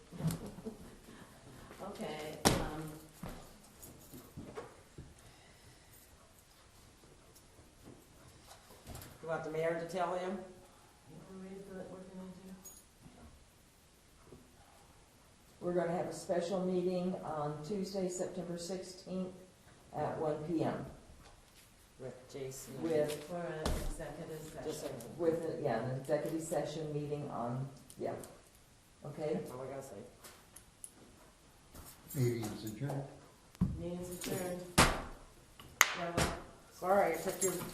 um, want the mayor to tell him? We're gonna have a special meeting on Tuesday, September sixteenth at one P M. With Jason. With, For an executive Just session. like, with, yeah, an executive session meeting on, yeah. Okay? that's all I gotta say. Meeting is adjourned. Meeting's adjourned. Well, Sorry, I took your